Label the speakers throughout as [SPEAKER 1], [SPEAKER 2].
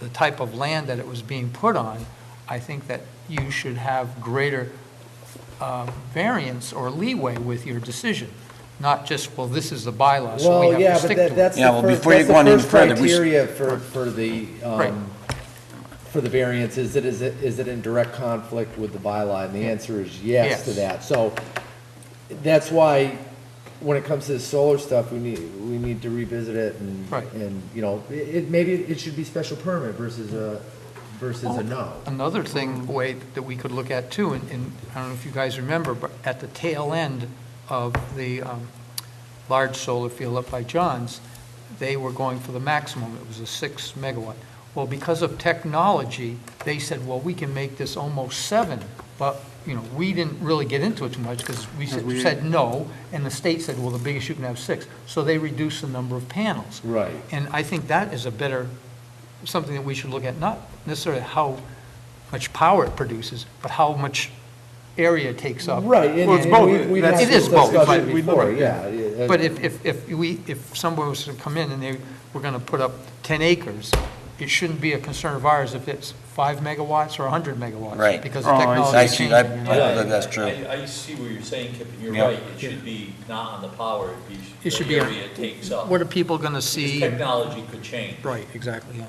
[SPEAKER 1] the type of land that it was being put on, I think that you should have greater uh, variance or leeway with your decision, not just, well, this is the bylaw, so we
[SPEAKER 2] Well, yeah,
[SPEAKER 1] have to
[SPEAKER 2] but
[SPEAKER 1] stick to it.
[SPEAKER 2] that, that's the
[SPEAKER 3] Yeah, well,
[SPEAKER 2] first,
[SPEAKER 3] before you
[SPEAKER 2] that's the
[SPEAKER 3] go on any
[SPEAKER 2] first
[SPEAKER 3] further, we s-
[SPEAKER 2] criteria for, for the,
[SPEAKER 1] Right.
[SPEAKER 2] um, for the variance, is it, is it, is it in direct conflict with the bylaw? And the answer is yes to
[SPEAKER 1] Yes.
[SPEAKER 2] that. So that's why, when it comes to this solar stuff, we need, we need to revisit it and,
[SPEAKER 1] Right.
[SPEAKER 2] and, you know, it, it- maybe it should be special permit versus a, versus a no.
[SPEAKER 1] Another thing, way that we could look at too, and- and I don't know if you guys remember, but at the tail end of the um, large solar field up by John's, they were going for the maximum, it was a six megawatt. Well, because of technology, they said, well, we can make this almost seven, but, you know, we didn't really get into it too much, because we said- said no, and the state said, well, the biggest you can have six, so they reduced the number of panels.
[SPEAKER 2] Right.
[SPEAKER 1] And I think that is a better, something that we should look at, not necessarily how much power it produces, but how much area it takes up.
[SPEAKER 2] Right, and,
[SPEAKER 4] Well, it's
[SPEAKER 2] and we,
[SPEAKER 4] both.
[SPEAKER 2] we've
[SPEAKER 4] That's-
[SPEAKER 2] had
[SPEAKER 1] It is
[SPEAKER 2] this
[SPEAKER 1] both,
[SPEAKER 2] discussion
[SPEAKER 1] but-
[SPEAKER 2] before, yeah. yeah.
[SPEAKER 1] But if, if, if we, if someone was to come in and they were gonna put up ten acres, it shouldn't be a concern of ours if it's five megawatts or a hundred megawatts.
[SPEAKER 3] Right.
[SPEAKER 1] Because the
[SPEAKER 4] Oh, I
[SPEAKER 1] technology
[SPEAKER 3] I
[SPEAKER 1] is
[SPEAKER 3] see,
[SPEAKER 1] changing.
[SPEAKER 3] I, I believe that's
[SPEAKER 5] I,
[SPEAKER 3] true.
[SPEAKER 5] I see what you're saying, Kip, and you're
[SPEAKER 3] Yeah.
[SPEAKER 5] right, it should be not on the power, it'd be.
[SPEAKER 1] It should
[SPEAKER 5] the
[SPEAKER 1] be on-
[SPEAKER 5] Area it takes up.
[SPEAKER 1] What are people gonna
[SPEAKER 5] Because
[SPEAKER 1] see?
[SPEAKER 5] Technology could change.
[SPEAKER 1] Right, exactly, yeah.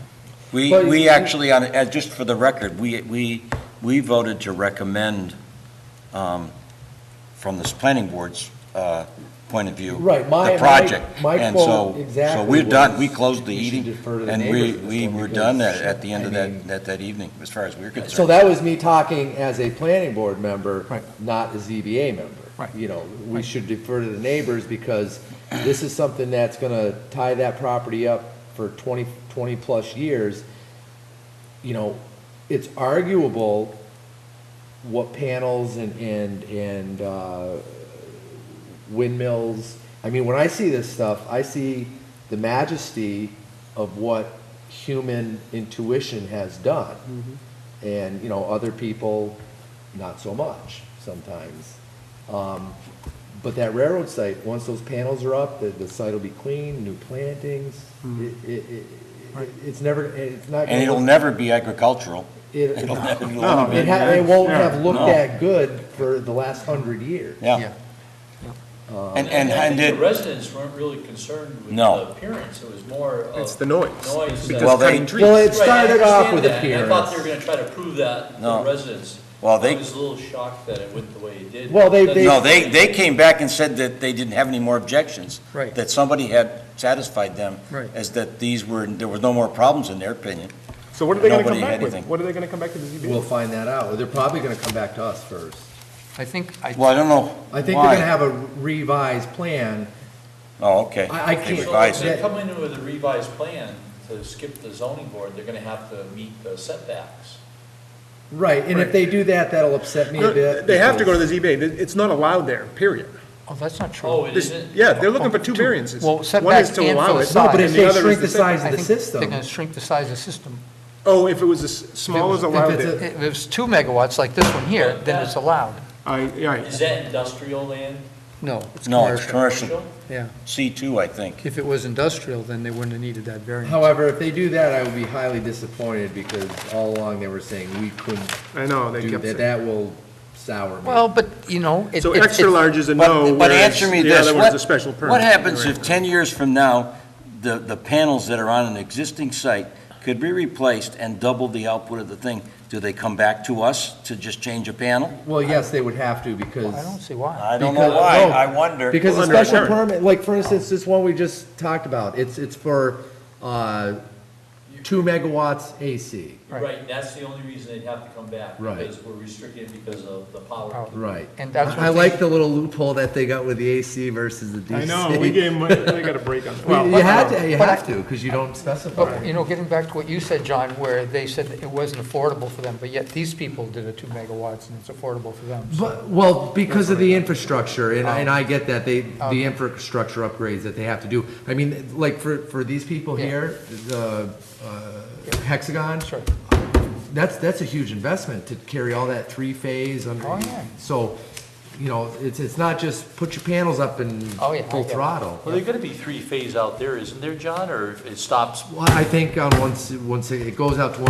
[SPEAKER 3] We,
[SPEAKER 2] But-
[SPEAKER 3] we actually, on, uh, just for the record, we, we, we voted to recommend, um, from this planning board's, uh, point of view.
[SPEAKER 2] Right, my-
[SPEAKER 3] The project.
[SPEAKER 2] my- my
[SPEAKER 3] And
[SPEAKER 2] quote
[SPEAKER 3] so-
[SPEAKER 2] exactly
[SPEAKER 3] So we're done,
[SPEAKER 2] was
[SPEAKER 3] we closed the
[SPEAKER 2] we should
[SPEAKER 3] eating,
[SPEAKER 2] defer to the
[SPEAKER 3] and we,
[SPEAKER 2] neighbors on this
[SPEAKER 3] we
[SPEAKER 2] one
[SPEAKER 3] were
[SPEAKER 2] because,
[SPEAKER 3] done at, at the end of
[SPEAKER 2] I mean-
[SPEAKER 3] that, at that evening, as far as we're concerned.
[SPEAKER 2] So that was me talking as a planning board member,
[SPEAKER 1] Right.
[SPEAKER 2] not a ZBA member.
[SPEAKER 1] Right.
[SPEAKER 2] You know, we
[SPEAKER 1] Right.
[SPEAKER 2] should defer to the neighbors because this is something that's gonna tie that property up for 20 20-plus years. You know, it's arguable what panels and, and, and, uh, windmills. I mean, when I see this stuff, I see the majesty of what human intuition has done. And, you know, other people, not so much sometimes. Um, but that railroad site, once those panels are up, the, the site will be clean, new plantings. It, it, it,
[SPEAKER 1] Right.
[SPEAKER 2] it's never, it's not.
[SPEAKER 3] And it'll
[SPEAKER 2] gonna-
[SPEAKER 3] never be agricultural.
[SPEAKER 2] It,
[SPEAKER 3] It'll never be-
[SPEAKER 4] No.
[SPEAKER 2] it ha- it won't have looked
[SPEAKER 3] No.
[SPEAKER 2] that good for the last hundred years.
[SPEAKER 3] Yeah, and, and,
[SPEAKER 5] I
[SPEAKER 3] and
[SPEAKER 5] think the
[SPEAKER 3] it,
[SPEAKER 5] residents weren't really concerned with
[SPEAKER 3] No.
[SPEAKER 5] the appearance, it was more of.
[SPEAKER 4] It's the noise.
[SPEAKER 5] Noise. that-
[SPEAKER 4] Because
[SPEAKER 3] Well,
[SPEAKER 4] well,
[SPEAKER 3] they-
[SPEAKER 4] cutting trees.
[SPEAKER 2] Well, it
[SPEAKER 5] Right, I
[SPEAKER 2] started off
[SPEAKER 5] understand
[SPEAKER 2] with
[SPEAKER 5] that, and I thought they were
[SPEAKER 2] appearance.
[SPEAKER 5] gonna try to prove that to
[SPEAKER 3] No.
[SPEAKER 5] the residents.
[SPEAKER 3] Well, they-
[SPEAKER 5] I was a little shocked that it went the way it did.
[SPEAKER 2] Well, they-
[SPEAKER 5] That's-
[SPEAKER 2] they-
[SPEAKER 3] no, they, they came back and said that they didn't have any more objections.
[SPEAKER 1] Right.
[SPEAKER 3] That somebody had satisfied them.
[SPEAKER 1] Right.
[SPEAKER 3] As that these were, there was no more problems in their opinion.
[SPEAKER 4] So what are they going to
[SPEAKER 3] Nobody
[SPEAKER 4] come
[SPEAKER 3] had
[SPEAKER 4] back with?
[SPEAKER 3] anything.
[SPEAKER 4] What are they going to come back to the ZBA?
[SPEAKER 2] We'll find that out. They're probably gonna come back to us first.
[SPEAKER 1] I think, I,
[SPEAKER 3] Well, I don't know
[SPEAKER 2] I think
[SPEAKER 3] why.
[SPEAKER 2] they're gonna have a revised plan.
[SPEAKER 3] Oh, okay.
[SPEAKER 2] I- I
[SPEAKER 3] They
[SPEAKER 2] can't-
[SPEAKER 5] So
[SPEAKER 3] revised
[SPEAKER 5] if
[SPEAKER 3] it.
[SPEAKER 5] they come in with a revised plan to skip the zoning board, they're gonna have to meet the setbacks.
[SPEAKER 2] Right, and if they do that, that'll upset me a
[SPEAKER 4] No,
[SPEAKER 2] bit.
[SPEAKER 4] They have to go to
[SPEAKER 2] because-
[SPEAKER 4] the ZBA. It- It's not allowed there, period.
[SPEAKER 1] oh, that's not true.
[SPEAKER 5] Oh, it
[SPEAKER 4] This-
[SPEAKER 5] isn't?
[SPEAKER 4] Yeah, they're looking for two variances.
[SPEAKER 1] Well,
[SPEAKER 4] One is
[SPEAKER 1] setbacks
[SPEAKER 4] to
[SPEAKER 1] and for
[SPEAKER 4] allow
[SPEAKER 1] the
[SPEAKER 4] it,
[SPEAKER 1] size.
[SPEAKER 4] and
[SPEAKER 2] But if they
[SPEAKER 4] other is
[SPEAKER 2] shrink
[SPEAKER 4] to
[SPEAKER 2] the
[SPEAKER 4] set-
[SPEAKER 2] size
[SPEAKER 1] I
[SPEAKER 2] of the
[SPEAKER 1] think They're
[SPEAKER 2] system,
[SPEAKER 1] gonna shrink the size of the system.
[SPEAKER 4] Oh, if it was as small as
[SPEAKER 1] If it
[SPEAKER 2] was-
[SPEAKER 4] allowed
[SPEAKER 2] if it's
[SPEAKER 4] there.
[SPEAKER 2] a-
[SPEAKER 1] If it's two megawatts like this one here,
[SPEAKER 5] But
[SPEAKER 1] then
[SPEAKER 5] that-
[SPEAKER 1] it's allowed.
[SPEAKER 4] I, yeah,
[SPEAKER 5] Is that industrial land?
[SPEAKER 1] No, it's
[SPEAKER 3] No, it's
[SPEAKER 1] commercial.
[SPEAKER 3] commercial,
[SPEAKER 1] Yeah,
[SPEAKER 3] C2, I think.
[SPEAKER 1] if it was industrial, then they wouldn't have needed that variance.
[SPEAKER 2] however, if they do that, I would be highly disappointed because all along they were saying we couldn't
[SPEAKER 4] I know, they
[SPEAKER 2] do
[SPEAKER 4] kept
[SPEAKER 2] that.
[SPEAKER 4] saying.
[SPEAKER 2] That will sour me.
[SPEAKER 1] Well, but, you know, it-
[SPEAKER 4] So
[SPEAKER 1] it-
[SPEAKER 4] extra
[SPEAKER 1] it-
[SPEAKER 4] large is a no,
[SPEAKER 3] But, but
[SPEAKER 4] whereas
[SPEAKER 3] answer me
[SPEAKER 4] the
[SPEAKER 3] this,
[SPEAKER 4] other one's a
[SPEAKER 3] what,
[SPEAKER 4] special permit.
[SPEAKER 3] what happens if
[SPEAKER 4] Right.
[SPEAKER 3] 10 years from now, the, the panels that are on an existing site could be replaced and double the output of the thing? Do they come back to us to just change a panel?
[SPEAKER 2] Well, yes, they would have to because.
[SPEAKER 1] I don't see why.
[SPEAKER 3] I don't know
[SPEAKER 2] Because-
[SPEAKER 3] why,
[SPEAKER 2] no,
[SPEAKER 3] I wonder.
[SPEAKER 2] Because the
[SPEAKER 4] Under
[SPEAKER 2] special
[SPEAKER 4] insurance.
[SPEAKER 2] permit, like, for instance, this one we just talked about, it's, it's for, uh, two megawatts AC.
[SPEAKER 1] Right.
[SPEAKER 5] Right, that's the only reason they'd have to come back.
[SPEAKER 2] Right.
[SPEAKER 5] Because we're restricted because of the
[SPEAKER 1] Power.
[SPEAKER 5] power.
[SPEAKER 2] Right.
[SPEAKER 1] And that's what
[SPEAKER 2] I I
[SPEAKER 1] they-
[SPEAKER 2] like the little loophole that they got with the AC versus the DC.
[SPEAKER 4] I know, we gave them, they got a break on it. Well,
[SPEAKER 2] You you had to, you
[SPEAKER 1] But I-
[SPEAKER 2] have to, because you don't specify.
[SPEAKER 1] But, Oh, you know, getting back to what you said, John, where they said it wasn't affordable for them, but yet these people did a two megawatts and it's affordable for them. So
[SPEAKER 2] But, well, because of the infrastructure, and, and I get that, they,
[SPEAKER 1] Oh.
[SPEAKER 2] the infrastructure upgrades that they have to do. I mean, like, for, for these people
[SPEAKER 1] Yeah.
[SPEAKER 2] here, the, uh, Hexagon,
[SPEAKER 1] Sure.
[SPEAKER 2] that's, that's a huge investment to carry all that three-phase under.
[SPEAKER 1] Oh, yeah.
[SPEAKER 2] So you know, it's, it's not just put your panels up and
[SPEAKER 1] Oh, yeah, I
[SPEAKER 2] full
[SPEAKER 1] get it.
[SPEAKER 2] throttle.
[SPEAKER 5] Well, there's gonna be three phase out there, isn't there, John, or it stops
[SPEAKER 2] Well, I think on once, once it goes out to